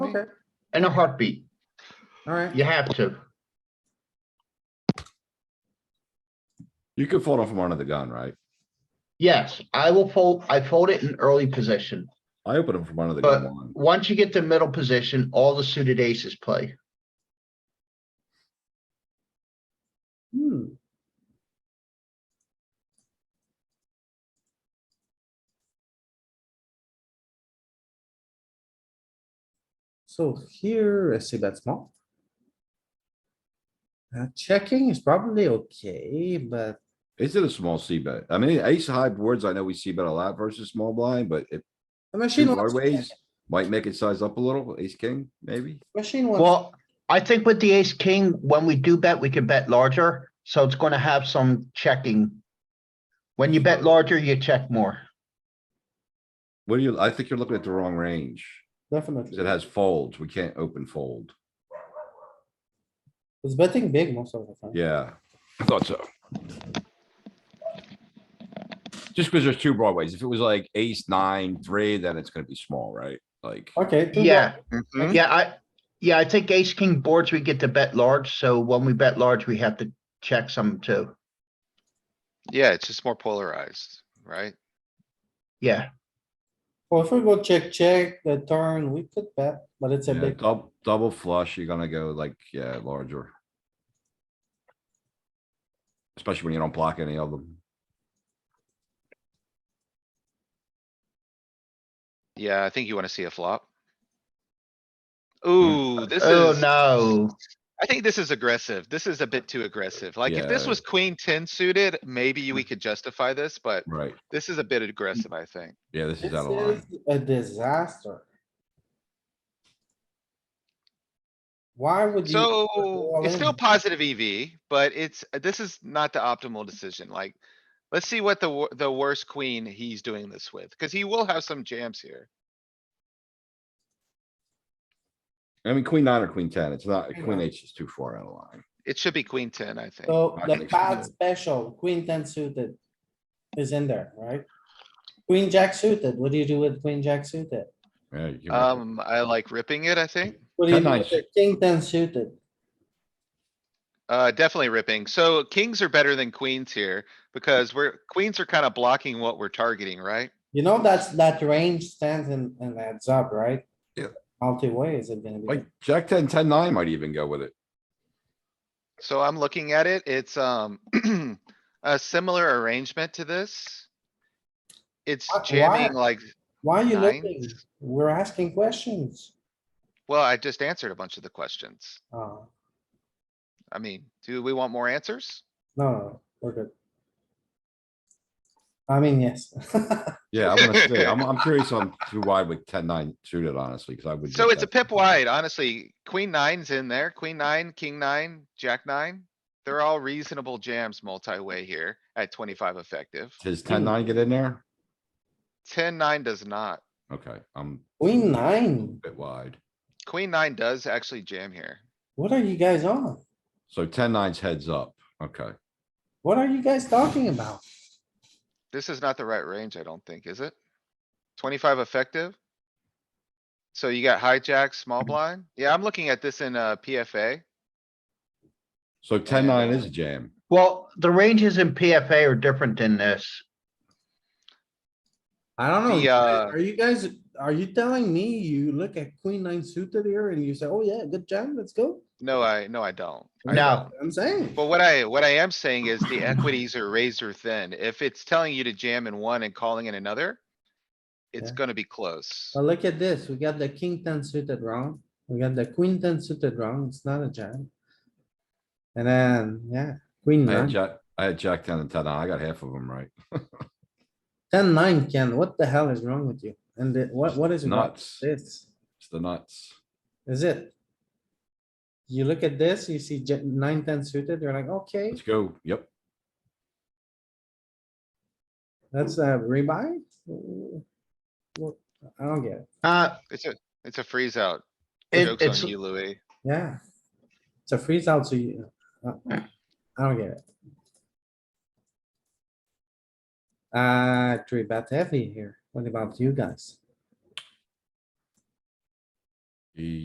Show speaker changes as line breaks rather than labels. Okay,
in a heartbeat.
all right.
You have to.
You could fold off from under the gun, right?
Yes, I will fold, I fold it in early position.
I open him from under the gun
But-
one.
Once you get to middle position, all the suited aces play.
Hmm. So here, let's see that small. Uh, checking is probably okay, but
Is it a small C bet? I mean, ace high boards, I know we see bet a lot versus small blind, but if
the
two
machine wants,
large ways, might make it size up a little, ace king, maybe?
machine wants,
Well, I think with the ace king, when we do bet, we can bet larger, so it's gonna have some checking. When you bet larger, you check more.
What do you, I think you're looking at the wrong range. 'cause It
definitely.
has folds. We can't open fold.
It's betting big most of the time.
Yeah, I thought so. Just because there's two broadways. If it was like ace, nine, three, then it's gonna be small, right? Like,
Okay. two
Yeah,
Mhm.
yeah, I, yeah, I think ace king boards, we get to bet large, so when we bet large, we have to check some too.
Yeah, it's just more polarized, right?
Yeah,
Well, if we go check, check the turn, we could bet, but it's a
yeah,
big,
double, double flush, you're gonna go like, yeah, larger. Especially when you don't block any of them.
Yeah, I think you wanna see a flop. Ooh, this
oh
is,
no.
I think this is aggressive. This is a bit too aggressive. Like, if this
Yeah.
was queen ten suited, maybe we could justify this, but
Right,
this is a bit aggressive, I think.
yeah, this
this
is out of line.
is a disaster. Why would you?
So, it's still
All in.
positive EV, but it's, this is not the optimal decision, like. Let's see what the, wor- the worst queen he's doing this with, cuz he will have some jams here.
I mean, queen nine or queen ten, it's not,
Queen
queen
nine.
H is too far out of line.
It should be queen ten, I think.
So
I
the
think so.
bad special, queen ten suited is in there, right? Queen jack suited, what do you do with queen jack suited?
Yeah, you can rip it.
Um, I like ripping it, I think.
What do you
Ten
do
nine
with the king ten suited?
Uh, definitely ripping. So kings are better than queens here because we're, queens are kind of blocking what we're targeting, right?
You know, that's, that range stands and, and adds up, right?
Yeah.
Multi-way is it gonna be?
Like, jack ten, ten, nine might even go with it.
So I'm looking at it, it's, um, a similar arrangement to this. It's
Why- why-
jamming like,
Why are you looking?
nines.
We're asking questions.
well, I just answered a bunch of the questions.
Oh,
I mean, do we want more answers?
no, no, we're good. I mean, yes.
Yeah, I'm gonna say, I'm, I'm curious on too wide with ten, nine suited, honestly, cuz I would.
So
get
it's a
that.
pip wide, honestly. Queen nine's in there, queen nine, king nine, jack nine. They're all reasonable jams multi-way here at twenty-five effective.
Does ten, nine get in there?
Ten, nine does not.
Okay, I'm
Queen nine,
a bit wide.
Queen nine does actually jam here.
what are you guys on?
So ten, nine's heads up, okay.
What are you guys talking about?
This is not the right range, I don't think, is it? Twenty-five effective? So you got hijack, small blind? Yeah, I'm looking at this in, uh, PFA.
So ten, nine is a jam.
Well, the ranges in PFA are different than this.
I don't know.
The,
you guys-
uh,
Are you guys, are you telling me you look at queen nine suited here and you say, oh yeah, good jam, let's go?
No, I, no, I don't. I
No.
don't.
I'm saying,
But what I, what I am saying is the equities are razor thin. If it's telling you to jam in one and calling in another, it's
Yeah.
gonna be close.
Uh,
well, look at this. We got the king ten suited wrong. We got the queen ten suited wrong. It's not a jam. And then, yeah, queen
I had
nine,
jack, I had jack ten and ten, I got half of them right.
ten nine, Ken, what the hell is wrong with you? And the- what, what is wrong with
Nuts.
this?
It's the nuts.
Is it? You look at this, you see ja- nine, ten suited, you're like, okay,
Let's go, yep.
that's a rebuy? Well, I don't get it.
Uh,
It's a, it's a freeze out.
It-
Joke's
it's-
on you, Louis.
Yeah. It's a freeze out, so you, uh, I don't get it. Uh, three bet heavy here. What about you guys?
He